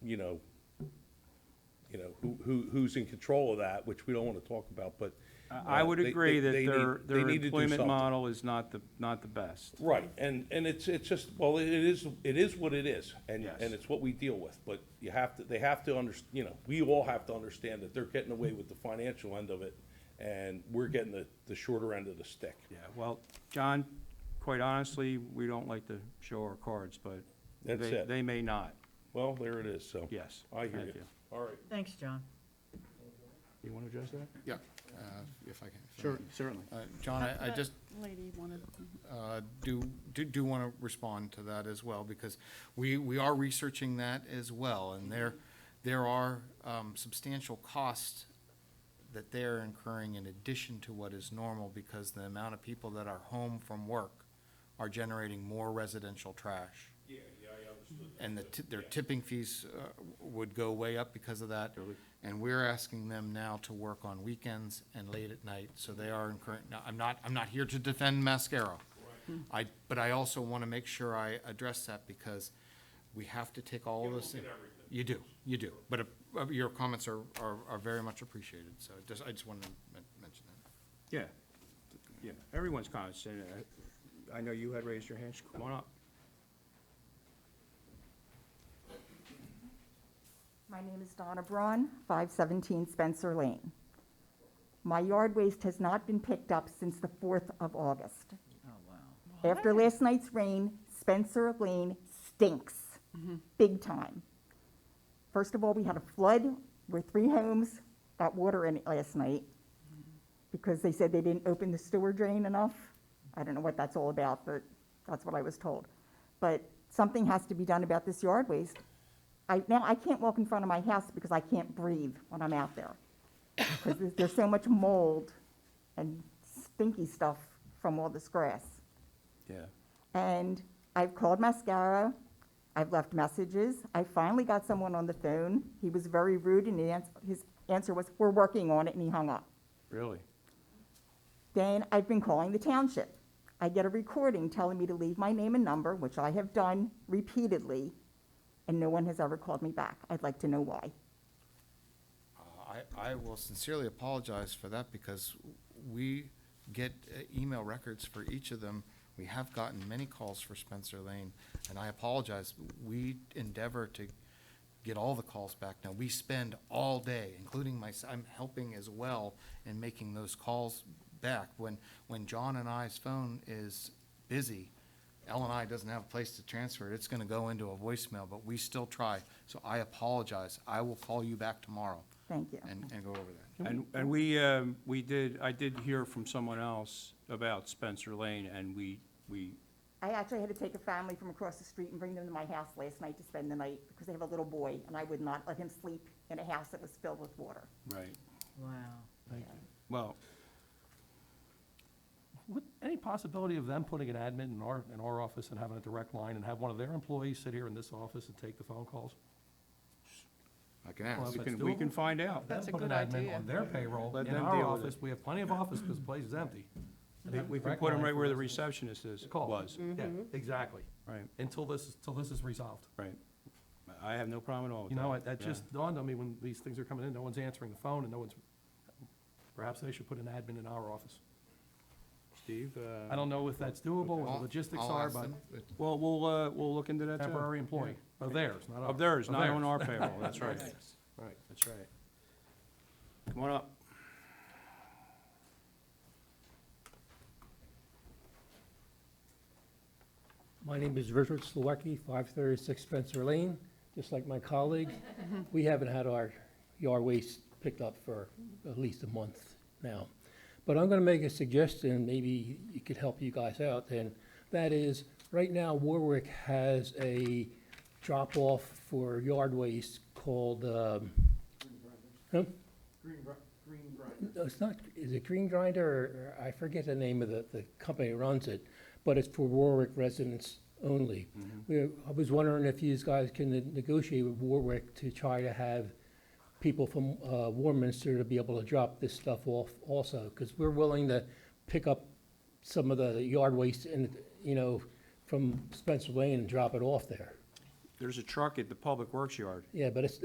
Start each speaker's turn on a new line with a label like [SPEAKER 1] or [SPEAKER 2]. [SPEAKER 1] you know, you know, who, who, who's in control of that, which we don't want to talk about, but.
[SPEAKER 2] I I
[SPEAKER 1] uh,
[SPEAKER 2] would
[SPEAKER 1] they-
[SPEAKER 2] agree
[SPEAKER 1] they-
[SPEAKER 2] that
[SPEAKER 1] they need-
[SPEAKER 2] their,
[SPEAKER 1] they
[SPEAKER 2] their
[SPEAKER 1] need to do
[SPEAKER 2] employment
[SPEAKER 1] something.
[SPEAKER 2] model is not the, not the best.
[SPEAKER 1] Right, and, and it's, it's just, well, it is, it is what it is, and,
[SPEAKER 2] Yes.
[SPEAKER 1] and it's what we deal with, but you have to, they have to under, you know, we all have to understand that they're getting away with the financial end of it, and we're getting the, the shorter end of the stick.
[SPEAKER 2] Yeah, well, John, quite honestly, we don't like to show our cards, but
[SPEAKER 1] That's
[SPEAKER 2] they-
[SPEAKER 1] it.
[SPEAKER 2] They may not,
[SPEAKER 1] Well, there it is, so.
[SPEAKER 2] yes.
[SPEAKER 1] I hear
[SPEAKER 2] Thank
[SPEAKER 1] you. All right.
[SPEAKER 3] Thanks, John.
[SPEAKER 2] You want to address that?
[SPEAKER 4] Yeah, uh, if I can. if
[SPEAKER 2] Er,
[SPEAKER 4] I
[SPEAKER 5] Sure,
[SPEAKER 4] can.
[SPEAKER 5] certainly.
[SPEAKER 4] Uh, John, I I
[SPEAKER 6] That
[SPEAKER 4] just
[SPEAKER 6] Lady wanted,
[SPEAKER 4] uh, do, do- do want to respond to that as well, because we, we are researching that as well,
[SPEAKER 6] Mm-hmm.
[SPEAKER 4] and there, there are um, substantial costs that they're incurring in addition to what is normal, because the amount of people that are home from work are generating more residential trash.
[SPEAKER 1] Yeah, yeah, I understood.
[SPEAKER 4] and the, ti- their tipping fees uh, would go way up because of that. And we're asking them now to work on weekends and late at night, so they are incurring, now, I'm not, I'm not here to defend Mascaro. I, but I also want to make sure I address that because we have to take all this. in- You do, you do, but uh, your comments are, are, are very much appreciated, so just, I just wanted to men- mention that.
[SPEAKER 2] Yeah, yeah, everyone's comments, and uh, I know you had raised your hand, so come on up.
[SPEAKER 7] My name is Donna Braun, 517 Spencer Lane. My yard waste has not been picked up since the 4th of August.
[SPEAKER 3] Oh, wow.
[SPEAKER 7] After last night's rain, Spencer Lane stinks,
[SPEAKER 3] Mm-hmm.
[SPEAKER 7] big time. First of all, we had a flood where three homes got water in it last night because they said they didn't open the sewer drain enough. I don't know what that's all about, but that's what I was told. But something has to be done about this yard waste. I, now, I can't walk in front of my house because I can't breathe when I'm out there. Because there's, there's so much mold and stinky stuff from all this grass.
[SPEAKER 2] Yeah.
[SPEAKER 7] And I've called Mascara. I've left messages. I finally got someone on the phone. He was very rude, and he ans- his answer was, "We're working on it," and he hung up.
[SPEAKER 2] Really?
[SPEAKER 7] Then I've been calling the township. I get a recording telling me to leave my name and number, which I have done repeatedly, and no one has ever called me back. I'd like to know why.
[SPEAKER 4] Uh, I, I will sincerely apologize for that because we get uh, email records for each of them. We have gotten many calls for Spencer Lane, and I apologize. We endeavor to get all the calls back now. We spend all day, including my, I'm helping as well in making those calls back. When, when John and I's phone is busy, L and I doesn't have a place to transfer it. It's gonna go into a voicemail, but we still try. So I apologize. I will call you back tomorrow
[SPEAKER 7] Thank you.
[SPEAKER 4] and, and go over that.
[SPEAKER 2] And, and we, um, we did, I did hear from someone else about Spencer Lane, and we, we,
[SPEAKER 7] I actually had to take a family from across the street and bring them to my house last night to spend the night because they have a little boy, and I would not let him sleep in a house that was filled with water.
[SPEAKER 2] right,
[SPEAKER 3] Wow.
[SPEAKER 2] well,
[SPEAKER 8] Would, any possibility of them putting an admin in our, in our office and having a direct line and have one of their employees sit here in this office and take the phone calls?
[SPEAKER 4] I can
[SPEAKER 8] Well,
[SPEAKER 4] ask.
[SPEAKER 2] we
[SPEAKER 8] that's
[SPEAKER 2] can, we can
[SPEAKER 8] doable.
[SPEAKER 2] find out.
[SPEAKER 8] Them
[SPEAKER 6] That's a
[SPEAKER 8] put an
[SPEAKER 6] good
[SPEAKER 8] admin
[SPEAKER 6] idea.
[SPEAKER 8] On their payroll,
[SPEAKER 2] Let
[SPEAKER 8] in
[SPEAKER 2] them
[SPEAKER 8] our
[SPEAKER 2] deal with
[SPEAKER 8] office, we have plenty of office because the place is empty.
[SPEAKER 2] We- We can put them right where the receptionist is,
[SPEAKER 8] Call.
[SPEAKER 2] was,
[SPEAKER 8] Yeah,
[SPEAKER 6] Mm-hmm.
[SPEAKER 8] exactly.
[SPEAKER 2] right,
[SPEAKER 8] Until this, is- till this is resolved.
[SPEAKER 2] right. I have no problem at all with
[SPEAKER 8] You
[SPEAKER 2] that.
[SPEAKER 8] know, it- that
[SPEAKER 2] Yeah.
[SPEAKER 8] just dawned on me when these things are coming in, no one's answering the phone and no one's, perhaps they should put an admin in our office.
[SPEAKER 2] Steve? uh,
[SPEAKER 8] I don't know if that's doable, what
[SPEAKER 4] I'll-
[SPEAKER 8] the logistics
[SPEAKER 4] I'll
[SPEAKER 8] are,
[SPEAKER 4] ask
[SPEAKER 8] but
[SPEAKER 4] them, but
[SPEAKER 2] Well, we'll, uh, we'll look into that too.
[SPEAKER 8] temporary employee, of theirs, not ours.
[SPEAKER 2] Of theirs, not on
[SPEAKER 8] theirs.
[SPEAKER 2] our payroll, that's right.
[SPEAKER 8] Right.
[SPEAKER 2] That's right. Come on up.
[SPEAKER 9] My name is Richard Slawecki, 536 Spencer Lane. Just like my colleague, we haven't had our yard waste picked up for at least a month now. But I'm going to make a suggestion, maybe it could help you guys out, and that is, right now Warwick has a drop-off for yard waste called, um... Green grinder. No, it's not, is it Green Grinder, or, or I forget the name of the, the company that runs it, but it's for Warwick residents only. We, I was wondering if you guys can ne- negotiate with Warwick to try to have people from, uh, Warminster to be able to drop this stuff off also, because we're willing to pick up some of the yard waste and, you know, from Spencer Lane and drop it off there.
[SPEAKER 10] There's a truck at the Public Works yard.
[SPEAKER 2] Yeah, but it's,